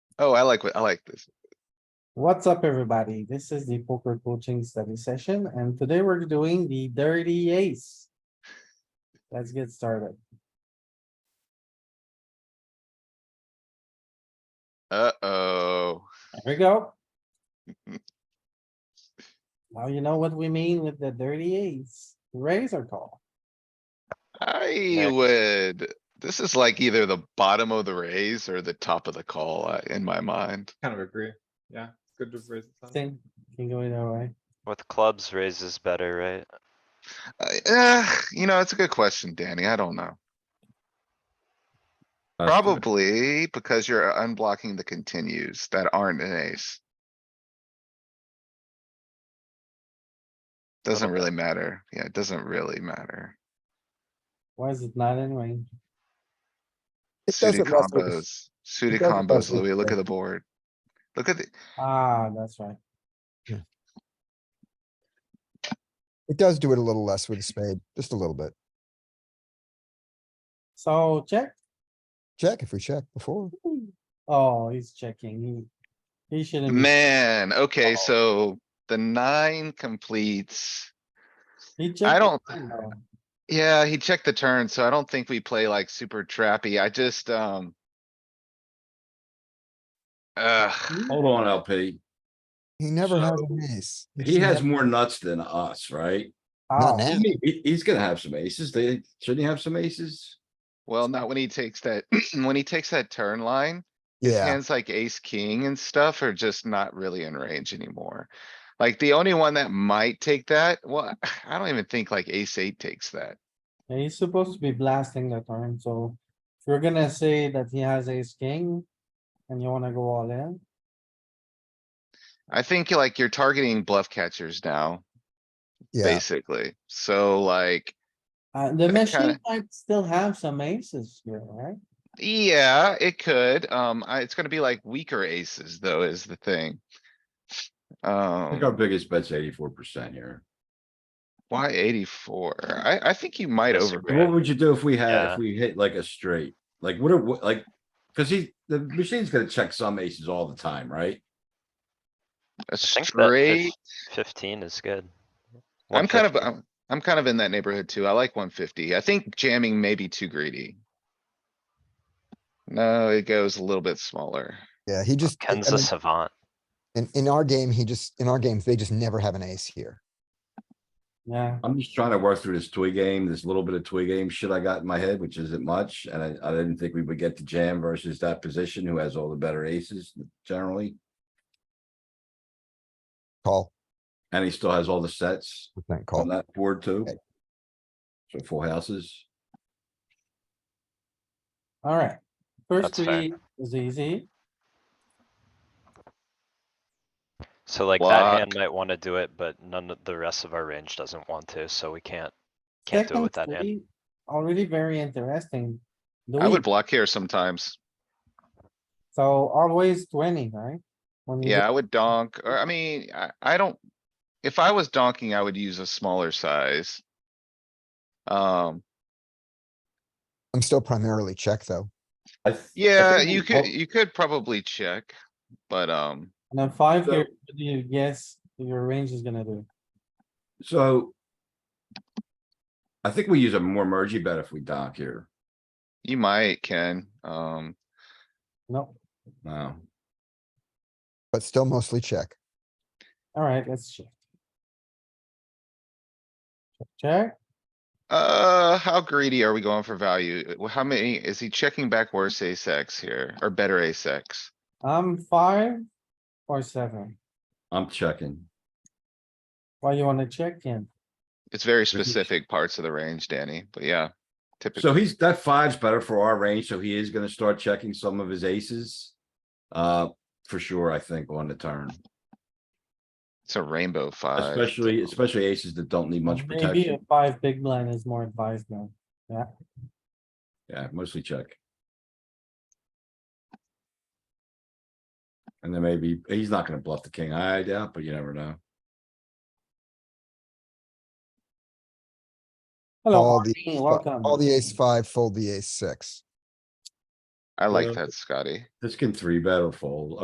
Oh, I like, what- I like this. What's up, everybody? This is the poker coaching study session, and today we're doing the dirty ace. Let's get started. Uh-oh. There we go. Now you know what we mean with the dirty ace. Raise or call? I would, this is like either the bottom of the raise or the top of the call uh, in my mind. Kind of agree. Yeah, it's good to raise the time. Thing can go either way. With clubs raises better, right? I- eh, you know, it's a good question, Danny. I don't know. Uh, Probably because you're unblocking the continues that aren't an ace. Doesn't really matter. Yeah, it doesn't really matter. Why is it not in range? It Suited doesn't mess with us. combos, suited doesn't mess combos, with Louis, look at the the- board. Look at the, Ah, that's right. It does do it a little less with a spade, just a little bit. So check. Check if we check before. Oh, he's checking. He, he shouldn't. be- man, okay, so the nine completes. he I checked Oh. don't- the turn, though. Yeah, he checked the turn, so I don't think we play like super trappy. I just, um. Uh, Hold on, LP. He never has So, an ace. He has more nuts than us, right? Not Ah, now. He- he's gonna have some aces. They, shouldn't he have some aces? well, not when he takes that, when he takes that turn line, Yeah, hands like ace, king and stuff are just not really in range anymore. Like the only one that might take that, well, I don't even think like ace eight takes that. yeah, he's supposed to be blasting the turn, so if you're gonna say that he has ace king and you wanna go all in, I think like you're targeting bluff catchers now, yeah. basically. So like, uh, the That machine kinda- might still have some aces here, right? Yeah, it could. Um, I, it's gonna be like weaker aces though is the thing. I think our Um, biggest bet's eighty-four percent here. why eighty-four? I, I think you might What overbet. would you do if we had, Yeah. if we hit like a straight? Like, what, are- what, like, cause he, the machine's gonna check some aces all the time, right? A I think that fif- uh, straight, Fifteen is good. I'm kind of, 150. I'm, I'm kind of in that neighborhood too. I like one fifty. I think jamming may be too greedy. No, it goes a little bit smaller. Yeah, he just, I Ken's a mean, savant. in, in our game, he just, in our games, they just never have an ace here. Yeah, I'm just trying to work through this toy game, this little bit of toy game shit I got in my head, which isn't much, and I, I didn't think we would get to jam versus that position who has all the better aces generally, Call, and he still has all the sets. percent on call. that board too. Okay. So full houses. alright. First That's fair. three is easy. So like that Block. hand might wanna do it, but none of the rest of our range doesn't want to, so we can't. Can't do it Second with that hand. three, Already very interesting. I Louis, would block here sometimes. so always twenty, right? When you Yeah, I would donk, or I mean, I, I don't, if I was donking, I would use a smaller size. Um, I'm still primarily check, though. I th- I Yeah, think we you all- could, you could probably check, but, um, And then five So- here, what do you guess your range is gonna do? So. I think we use a more mergey bet if we dock here. you might, Ken, um, No, Wow. But still mostly check. alright, let's check. Check, uh, how greedy are we going for value? Uh, Wh- How many, is he checking back worse ace X here, or better ace X? I'm five or seven. I'm checking. Why you wanna check in? It's very he ch- specific parts of the range, Danny, but yeah, So typically, he's, that five's better for our range, so he is gonna start checking some of his aces. Uh, for sure, I think on the turn, it's a rainbow five. especially, especially aces that don't need much Maybe a protection. five big blind is more advised now. Yeah, mostly check. And then maybe, he's not gonna bluff the king, I doubt, but you never know. Hello, All the, Martin, welcome. all the ace five, fold the ace six. I like Yeah. that, Scotty. This can three bet or fold,